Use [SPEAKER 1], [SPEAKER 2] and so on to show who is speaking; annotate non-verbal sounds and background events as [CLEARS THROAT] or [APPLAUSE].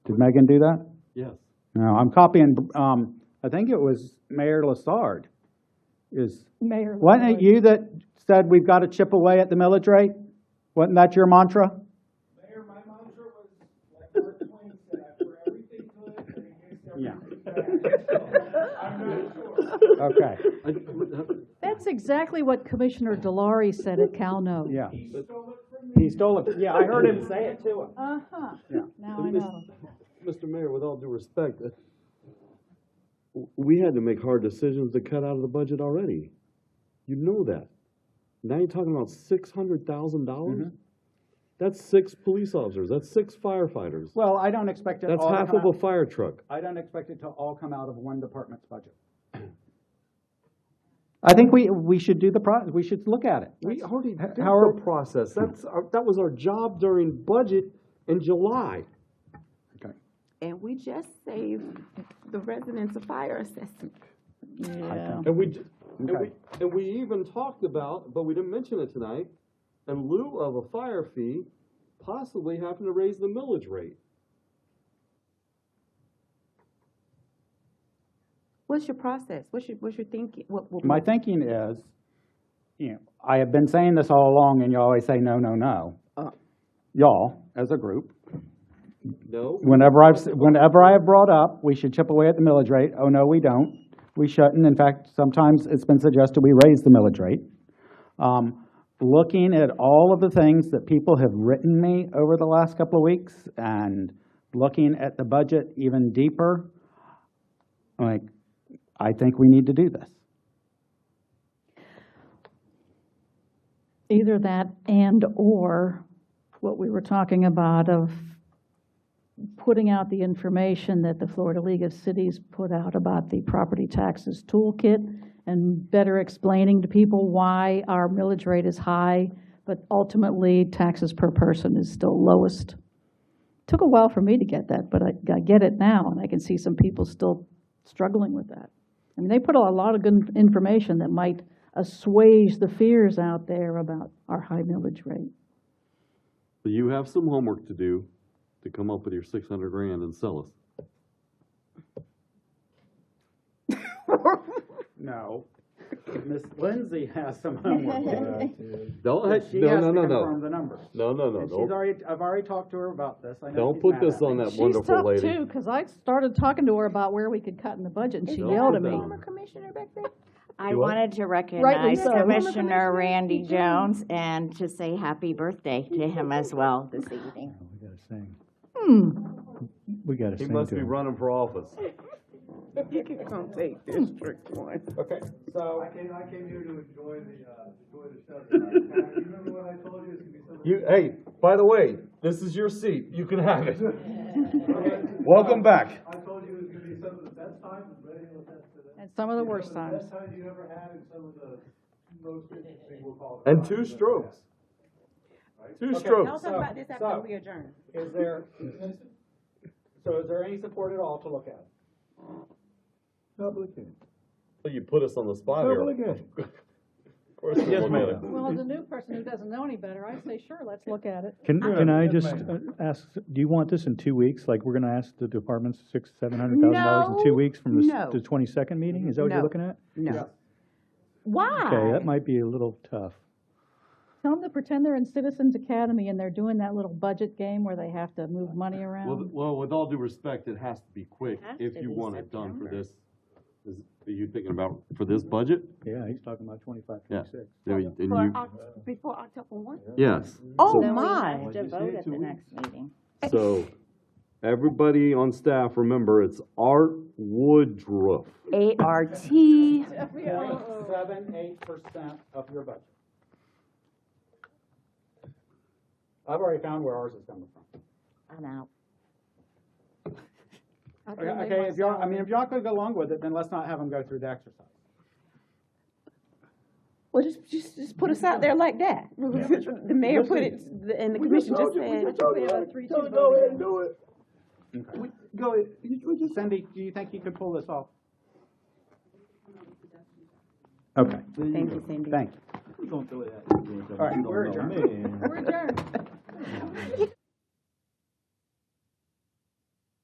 [SPEAKER 1] Did Megan do that?
[SPEAKER 2] [LAUGHS] Yes.
[SPEAKER 1] No, I'm copying, um, I think it was Mayor Lassard is,
[SPEAKER 3] Mayor.
[SPEAKER 1] wasn't it
[SPEAKER 3] Lord.
[SPEAKER 1] you that said we've got to chip away at the millage rate? Wasn't that your mantra?
[SPEAKER 4] Mayor, my mantra was, like Mark Twain said, I for everything good and against
[SPEAKER 1] Yeah. Uh,
[SPEAKER 4] everything bad. So, I'm not sure.
[SPEAKER 1] Okay,
[SPEAKER 2] I- would that-
[SPEAKER 3] That's exactly what Commissioner Delary said at Calno.
[SPEAKER 1] yeah.
[SPEAKER 4] He stole it from me.
[SPEAKER 1] He stole it, yeah, I heard
[SPEAKER 4] [LAUGHS]
[SPEAKER 1] him say it too.
[SPEAKER 3] Uh-huh,
[SPEAKER 1] Yeah.
[SPEAKER 3] now
[SPEAKER 2] But
[SPEAKER 3] I
[SPEAKER 2] Miss-
[SPEAKER 3] know.
[SPEAKER 2] Mr. Mayor, with all due respect, uh, w- we had to make hard decisions to cut out of the budget already. You know that. Now you're talking about six hundred thousand dollars? That's six police officers, that's six firefighters,
[SPEAKER 1] Well, I don't expect it
[SPEAKER 2] that's
[SPEAKER 1] all to
[SPEAKER 2] half
[SPEAKER 1] come
[SPEAKER 2] of a
[SPEAKER 1] out,
[SPEAKER 2] fire truck.
[SPEAKER 1] I don't expect it to all come out of one department's
[SPEAKER 4] [CLEARS THROAT]
[SPEAKER 1] budget. I think we, we should do the pro, we should look at it.
[SPEAKER 2] We already did
[SPEAKER 1] how are-
[SPEAKER 2] the process, that's, our- that was our job during budget in July.
[SPEAKER 1] Okay.
[SPEAKER 5] And we just saved the residents a fire assessment.
[SPEAKER 3] Yeah.
[SPEAKER 2] And we, j- and we,
[SPEAKER 1] Okay.
[SPEAKER 2] and we even talked about, but we didn't mention it tonight, in lieu of a fire fee, possibly having to raise the millage rate.
[SPEAKER 5] What's your process? What's your, what's your thinking? What, what?
[SPEAKER 1] My thinking is, you know, I have been saying this all along, and you always say, no, no, no.
[SPEAKER 5] Uh.
[SPEAKER 1] Y'all, as a group,
[SPEAKER 2] No?
[SPEAKER 1] whenever I've, s- whenever I have brought up, we should chip away at the millage rate, oh, no, we don't. We shouldn't. In fact, sometimes it's been suggested we raise the millage rate. Um, looking at all of the things that people have written me over the last couple of weeks and looking at the budget even deeper, like, I think we need to do this.
[SPEAKER 3] Either that and/or what we were talking about of putting out the information that the Florida League of Cities put out about the property taxes toolkit and better explaining to people why our millage rate is high, but ultimately taxes per person is still lowest. Took a while for me to get that, but I, I get it now, and I can see some people still struggling with that. I mean, they put a lot of good information that might assuage the fears out there about our high millage rate.
[SPEAKER 2] So you have some homework to do to come up with your six hundred grand and sell us.
[SPEAKER 1] No. Miss Lindsay has some homework to do.
[SPEAKER 3] [LAUGHS]
[SPEAKER 2] Don't,
[SPEAKER 1] But She
[SPEAKER 2] no,
[SPEAKER 1] has
[SPEAKER 2] no,
[SPEAKER 1] to
[SPEAKER 2] no,
[SPEAKER 1] confirm
[SPEAKER 2] no.
[SPEAKER 1] the numbers.
[SPEAKER 2] No, no, no,
[SPEAKER 1] And she's
[SPEAKER 2] don't,
[SPEAKER 1] already, I've already talked to her about this. I know
[SPEAKER 2] don't
[SPEAKER 1] she's
[SPEAKER 2] put
[SPEAKER 1] mad at
[SPEAKER 2] this on
[SPEAKER 1] me.
[SPEAKER 2] that wonderful
[SPEAKER 3] She's tough
[SPEAKER 2] lady.
[SPEAKER 3] too, because I started talking to her about where we could cut in the budget, and she
[SPEAKER 2] Don't
[SPEAKER 3] yelled at
[SPEAKER 2] do
[SPEAKER 3] me.
[SPEAKER 2] that.
[SPEAKER 5] Former commissioner back there?
[SPEAKER 6] I
[SPEAKER 2] You what?
[SPEAKER 6] wanted to recognize
[SPEAKER 3] so. Former
[SPEAKER 5] Commissioner
[SPEAKER 6] Commissioner Randy
[SPEAKER 5] Randy Jones.
[SPEAKER 6] Jones and to say happy birthday to him as well this evening.
[SPEAKER 7] We gotta sing.
[SPEAKER 5] Hmm.
[SPEAKER 7] We gotta
[SPEAKER 2] He
[SPEAKER 7] sing
[SPEAKER 2] must
[SPEAKER 7] to
[SPEAKER 2] be
[SPEAKER 7] him.
[SPEAKER 2] running for office.
[SPEAKER 5] You can come take District One.
[SPEAKER 1] Okay,
[SPEAKER 4] I
[SPEAKER 1] so,
[SPEAKER 4] came, I came here to enjoy the, uh, enjoy the show. tonight. Now, You remember what I told you, it's gonna be something.
[SPEAKER 2] You, hey, by the way, this is your seat, you can
[SPEAKER 1] [LAUGHS]
[SPEAKER 2] have it. Welcome back.
[SPEAKER 4] I told you it was gonna be some of the best times and many of the best today.
[SPEAKER 3] And some of the worst
[SPEAKER 4] Some of the
[SPEAKER 3] times.
[SPEAKER 4] Best times you ever had and some of the most interesting, we'll call it.
[SPEAKER 2] And two strokes. Two
[SPEAKER 5] I'll
[SPEAKER 2] strokes.
[SPEAKER 5] talk about this
[SPEAKER 1] So-
[SPEAKER 5] after we adjourn.
[SPEAKER 1] is there, so is there any support at all to look at?
[SPEAKER 7] Public hearing.
[SPEAKER 2] You put us on the spot here.
[SPEAKER 7] Public hearing.
[SPEAKER 2] [LAUGHS] Of course we'll
[SPEAKER 7] Yes,
[SPEAKER 2] look
[SPEAKER 7] ma'am.
[SPEAKER 2] at it.
[SPEAKER 3] Well, as a new person who doesn't know any better, I say, sure, let's look at it.
[SPEAKER 7] Can, can I
[SPEAKER 4] yes,
[SPEAKER 7] just uh, ask, do you want this in two weeks? Like, we're gonna ask the departments six, seven hundred thousand dollars in two
[SPEAKER 5] No,
[SPEAKER 7] weeks from the s-
[SPEAKER 5] no.
[SPEAKER 7] the twenty-second meeting? Is that what you're
[SPEAKER 5] No.
[SPEAKER 7] looking at?
[SPEAKER 5] No.
[SPEAKER 7] Okay, that
[SPEAKER 5] Why?
[SPEAKER 7] might be a little tough.
[SPEAKER 3] Tell them to pretend they're in Citizens Academy and they're doing that little budget game where they have to move money
[SPEAKER 2] Well,
[SPEAKER 3] around.
[SPEAKER 2] well, with all due respect, it has to be quick
[SPEAKER 6] Has
[SPEAKER 2] if
[SPEAKER 6] to
[SPEAKER 2] you
[SPEAKER 6] be
[SPEAKER 2] want it done for
[SPEAKER 6] September.
[SPEAKER 2] this. Is, are you thinking about for this budget?
[SPEAKER 7] Yeah, he's talking about twenty-five,
[SPEAKER 2] Yeah.
[SPEAKER 7] twenty-six.
[SPEAKER 2] There you- and
[SPEAKER 5] For
[SPEAKER 2] you-
[SPEAKER 5] Oct- Before October one?
[SPEAKER 2] Yes.
[SPEAKER 5] Oh,
[SPEAKER 2] So-
[SPEAKER 5] my.
[SPEAKER 6] To vote at the next meeting.
[SPEAKER 2] So, everybody on staff, remember, it's Art Woodruff.
[SPEAKER 6] ART,
[SPEAKER 1] Point seven eight percent of your budget. I've already found where ours is coming from.
[SPEAKER 6] I'm out.
[SPEAKER 1] Okay, Okay, if y'all, I mean, if y'all could go along with it, then let's not have them go through the exercise.
[SPEAKER 5] Well, just, just, just put us out there like that. [LAUGHS] The mayor put it, and the commission just said.
[SPEAKER 1] Oh,
[SPEAKER 3] Go ahead and do it.
[SPEAKER 1] Go, Cindy, do you think you could pull this off? Okay,
[SPEAKER 6] Thank you, Cindy.
[SPEAKER 1] thank you. All right, we're adjourned.
[SPEAKER 3] We're adjourned.